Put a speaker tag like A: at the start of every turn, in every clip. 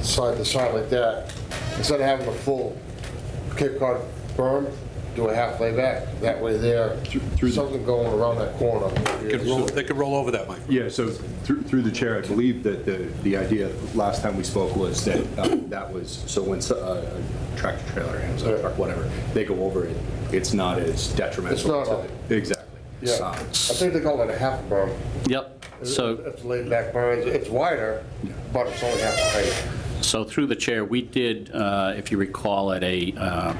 A: side to side like that, instead of having a full Cape Cod berm, do a half lay back, that way there,
B: through the-
A: something going around that corner.
C: Could roll- They could roll over that, Mike.
B: Yeah, so through, through the chair, I believe that the, the idea last time we spoke was that um, that was, so when so- uh, a tractor trailer, Amazon truck, whatever, they go over it, it's not as detrimental.
A: It's not.
B: to- Exactly.
A: Yeah,
B: Um,
A: I think they call it a half a berm.
D: Yep, so,
A: It's laid back berm, it's wider, but it's only half the height.
D: so through the chair, we did, uh, if you recall, at a, uh,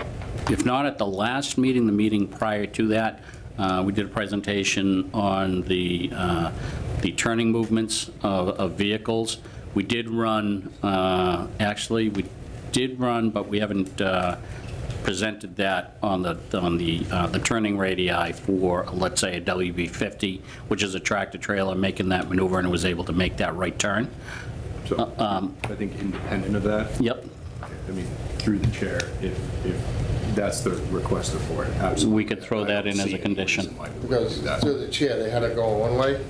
D: if not at the last meeting, the meeting prior to that, uh, we did a presentation on the, uh, the turning movements of of vehicles. We did run, uh, actually, we did run, but we haven't uh, presented that on the, on the, uh, the turning radii for, let's say, a WB50, which is a tractor-trailer making that maneuver and was able to make that right turn.
B: So I think independent of that.
D: Yep,
B: I mean, through the chair, if, if that's the request of the board, absolutely.
D: We could throw
B: I
D: that
B: don't
D: in as
B: see
D: a
B: any
D: condition.
B: reason why we wouldn't
A: Because
B: do that.
A: through the chair, they had to go one way,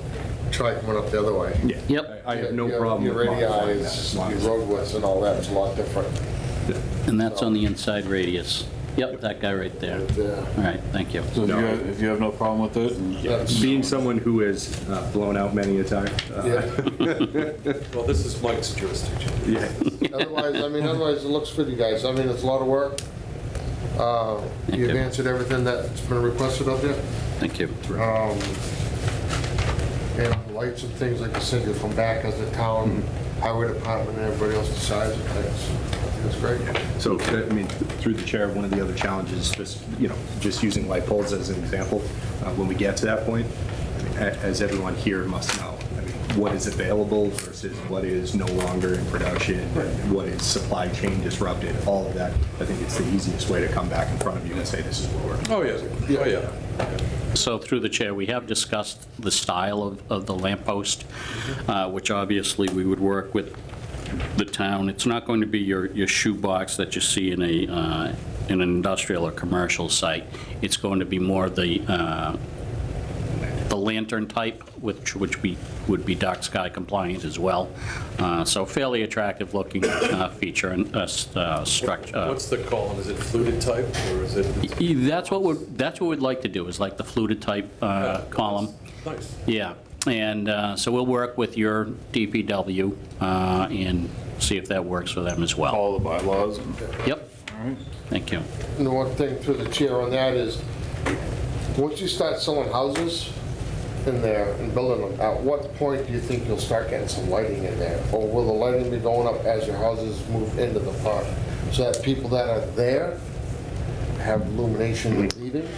A: try coming up the other way.
B: Yeah.
D: Yep.
B: I I have no
A: Your-
B: problem with
A: Your radii
B: modifying that.
A: is,
B: as
A: your
B: long as-
A: road width and all that is a lot different.
D: and that's on the inside radius. Yep, that guy right there.
A: But, uh,
D: All right, thank you.
E: So if you
B: No.
E: have- if you have no problem with it, and-
A: that's-
B: Being someone who has uh, blown out many a time. uh,
A: yeah.
C: Well, this is Mike's jurisdiction.
B: Yeah.
A: Otherwise, I mean, otherwise, it looks good, you guys. I mean, it's a lot of work. Uh, You've
D: you.
A: answered everything that's been requested up there.
D: Thank you.
A: And lights and things, like I said, you'll come back as the town highway department and everybody else decides. and things. That's great.
B: So, I mean, through the chair, one of the other challenges, just, you know, just using light poles as an example, uh, when we get to that point, a- as everyone here must know, I mean, what is available versus what is no longer in production, and what is supply chain disrupted, all of that. I think it's the easiest way to come back in front of you and say, this is what we're.
C: Oh, yeah, oh, yeah.
D: So through the chair, we have discussed the style of, of the lamppost, uh, which obviously we would work with the town. It's not going to be your, your shoebox that you see in a, uh, in an industrial or commercial site. It's going to be more the, uh, the lantern type, which, which we, would be dark sky compliant as well. Uh, So fairly attractive looking uh, feature and uh, s- uh, structure. uh,
C: What's the column? Is it fluted type or is it?
D: E- That's what we're, that's what we'd like to do, is like the fluted type uh, column.
C: Nice.
D: Yeah, and uh, so we'll work with your DPW uh, and see if that works for them as well.
E: all the bylaws and.
D: Yep. Thank you.
A: And the one thing through the chair on that is, once you start selling houses in there and building them, at what point do you think you'll start getting some lighting in there? Or will the lighting be going up as your houses move into the park? So that people that are there have illumination leaving?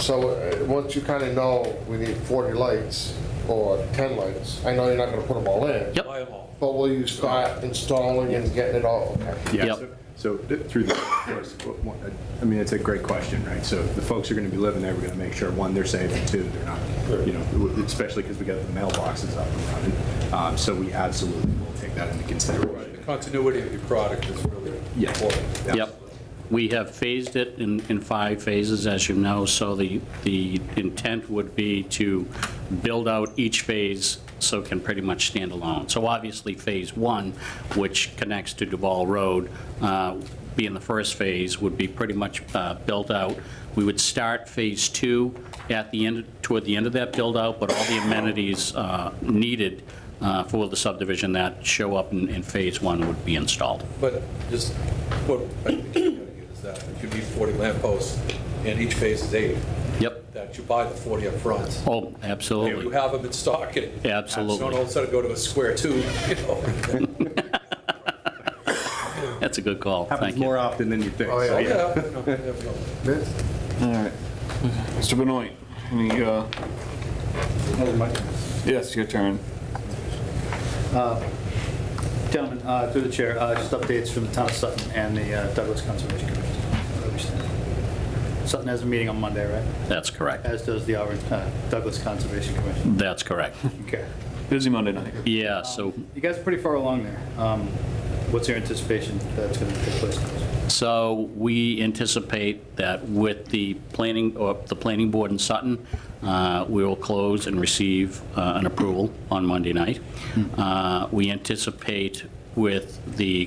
A: So uh, once you kind of know we need 40 lights or 10 lights, I know you're not going to put them all in.
D: Yep.
C: Buy 'em all.
A: But will you start installing and getting it all?
B: Yeah,
D: Yep.
B: so- so th- through the, of course, w- one- uh, I mean, it's a great question, right? So the folks who are going to be living there, we're going to make sure, one, they're safe, and two, they're not, you know, w- especially because we got the mailboxes up and running. Um, So we absolutely will take that into
C: The
B: consideration.
C: continuity of your product is really
B: Yeah.
C: important.
D: Yep. We have phased it in, in five phases, as you know, so the, the intent would be to build out each phase so it can pretty much stand alone. So obviously, Phase 1, which connects to Duval Road, uh, being the first phase, would be pretty much uh, built out. We would start Phase 2 at the end, toward the end of that build-out, but all the amenities uh, needed uh, for the subdivision that show up in, in Phase 1 would be installed.
C: But just, what I think you gotta get is that if you need 40 lampposts and each phase is eight,
D: Yep.
C: that you buy the 40 up front.
D: Oh, absolutely.
C: You have them in stock and.
D: Absolutely.
C: Don't all of a sudden go to a square two, you know?
D: That's a good call.
B: Happens
D: Thank you.
B: more often than you think.
A: Oh, yeah.
B: so,
C: Yeah, no, there we go.
E: All right. Mr. Benoit, any, uh, yes, your turn.
F: Gentlemen, uh, through the chair, uh, just updates from the town of Sutton and the uh, Douglas Conservation Commission. Sutton has a meeting on Monday, right?
D: That's correct.
F: As does the Auburn, uh, Douglas Conservation Commission.
D: That's correct.
F: Okay.
E: Busy Monday night.
D: Yeah, so,
F: You guys are pretty far along there. Um, What's your anticipation that's going to take place?
D: so we anticipate that with the planning, or the planning board in Sutton, uh, we will close and receive uh, an approval on Monday night. Uh, We anticipate with the